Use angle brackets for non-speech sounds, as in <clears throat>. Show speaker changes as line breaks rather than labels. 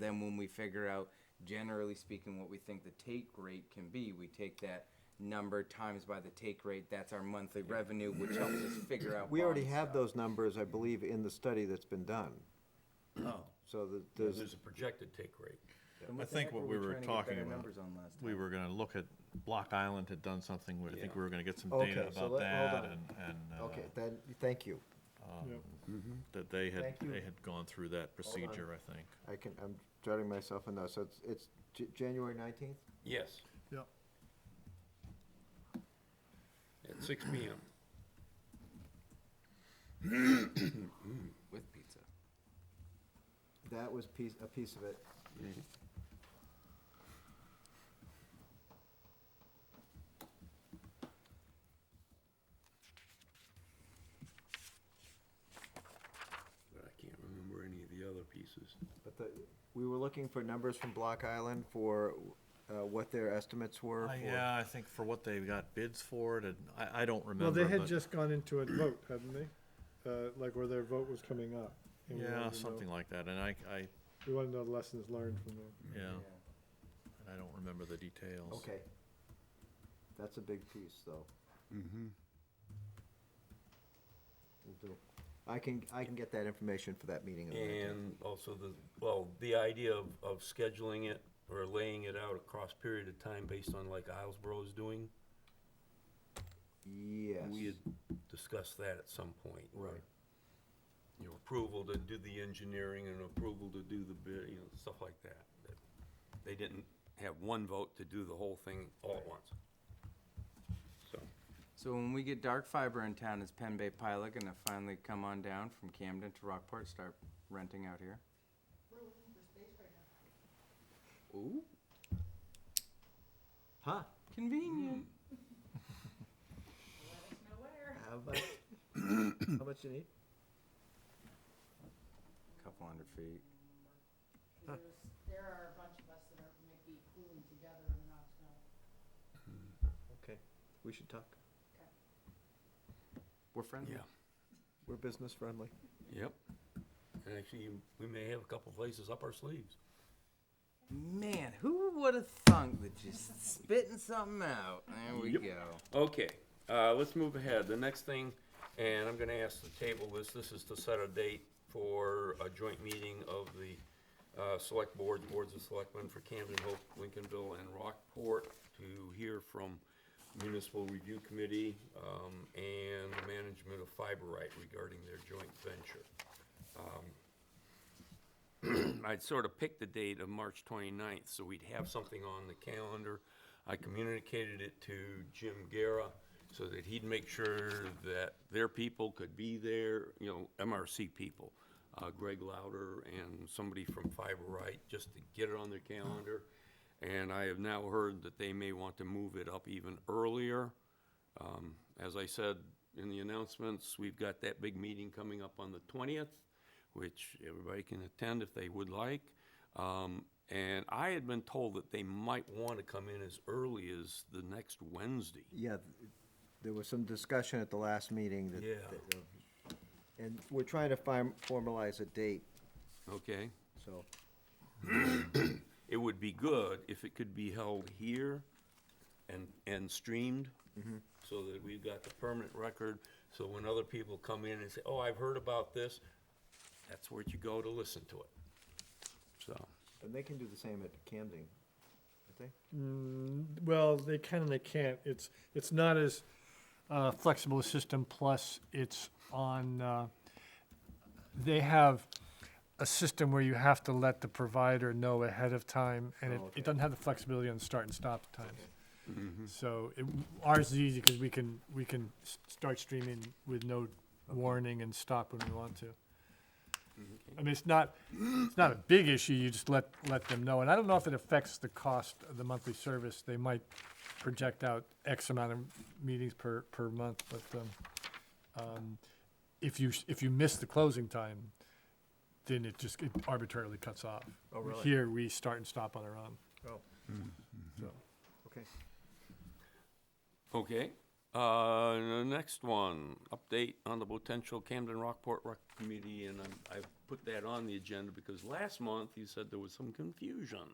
Then when we figure out, generally speaking, what we think the take rate can be, we take that number times by the take rate. That's our monthly revenue, which helps us figure out.
We already
bond
have
stuff.
those numbers, I believe, in the study that's been done.
Oh.
So that
There's
there's,
a projected take rate.
Then
I
the
think
heck
what we were
trying to get
talking
better
about,
numbers on last
We
time?
were gonna look at, Block Island had done something, where I think
Yeah.
we were gonna get some
Okay,
data
so
about
let- hold
that and, and, uh,
okay, then, thank you. Mm-hmm.
that they had,
Thank you.
they had gone through that procedure, I think.
I can, I'm jotting myself in now, so it's, it's J- January nineteenth?
Yes,
Yep.
at six P M.
With pizza.
That was piece, a piece of it.
But I can't remember any of the other pieces.
But the, we were looking for numbers from Block Island for uh, what their estimates were.
Uh,
for-
Yeah, I think for what they got bids for it, and I, I don't remember.
Well, they had
but-
just gone into a vote, hadn't they? Uh, like where their vote was coming up. and we wanted
Yeah,
to
something
know-
like that, and I, I,
We want to know the lessons learned from them.
yeah,
Mm-hmm.
and I don't remember the details.
Okay. That's a big piece, though. Mm-hmm. Will do. I can, I can get that information for that meeting. on the 19th.
And also the, well, the idea of, of scheduling it or laying it out across period of time based on like Islesboro is doing.
Yes.
We had discussed that at some point. where,
Right.
You know, approval to do the engineering and approval to do the bid, you know, stuff like that. that They didn't have one vote to do the whole thing all at once. So,
So when we get dark fiber in town, is Penn Bay Pilot gonna finally come on down from Camden to Rockport, start renting out here? We're looking for space right
Huh?
now. Ooh, convenient.
How <coughs> much, how much you need?
Hmm. Couple hundred feet.
There's, there are a bunch of us that are, might be pooling together and not know.
Okay, we should talk.
We're friendly.
yeah,
We're business friendly.
yep. And actually, we may have a couple places up our sleeves.
Man, who would have thunk that just spitting something out? There we
Yep.
go.
Okay, uh, let's move ahead. The next thing, and I'm gonna ask the table this, this is to set a date for a joint meeting of the, uh, select boards, boards of selectmen for Camden, Hope, Lincolnville, and Rockport to hear from municipal review committee, um, and the management of Fiberite regarding their joint venture. <clears throat> I'd sort of picked the date of March 29th, so we'd have something on the calendar. I communicated it to Jim Guerra so that he'd make sure that their people could be there, you know, MRC people, uh, Greg Louder and somebody from Fiberite, just to get it on their calendar. And I have now heard that they may want to move it up even earlier. Um, As I said in the announcements, we've got that big meeting coming up on the 20th, which everybody can attend if they would like. Um, And I had been told that they might want to come in as early as the next Wednesday.
Yeah, th- there was some discussion at the last meeting that.
Yeah.
that, uh, And we're trying to fin- formalize a date,
Okay?
so,
It would be good if it could be held here and, and streamed, so that we've got the permanent record, so when other people come in and say, oh, I've heard about this, that's where you go to listen to it. So,
and they can do the same at Camden, I think.
Well, they can and they can't. It's, it's not as uh, flexible a system, plus it's on, uh, they have a system where you have to let the provider know ahead of time, and it,
Oh, okay.
it doesn't have the flexibility on start and stop times. Mm-hmm. So it, ours is easy because we can, we can s- start streaming with no warning and stop when we want to.
Mm-hmm.
I mean, it's not, it's not a big issue, you just let, let them know. And I don't know if it affects the cost of the monthly service. They might project out X amount of meetings per, per month, but, um, um, if you, s- if you miss the closing time, then it just it arbitrarily cuts off.
Oh, really?
Here, we start and stop on our own.
Oh. Okay.
okay, Uh, the next one, update on the potential Camden Rockport Rec Committee, and I'm- I've put that on the agenda because last month you said there was some confusion.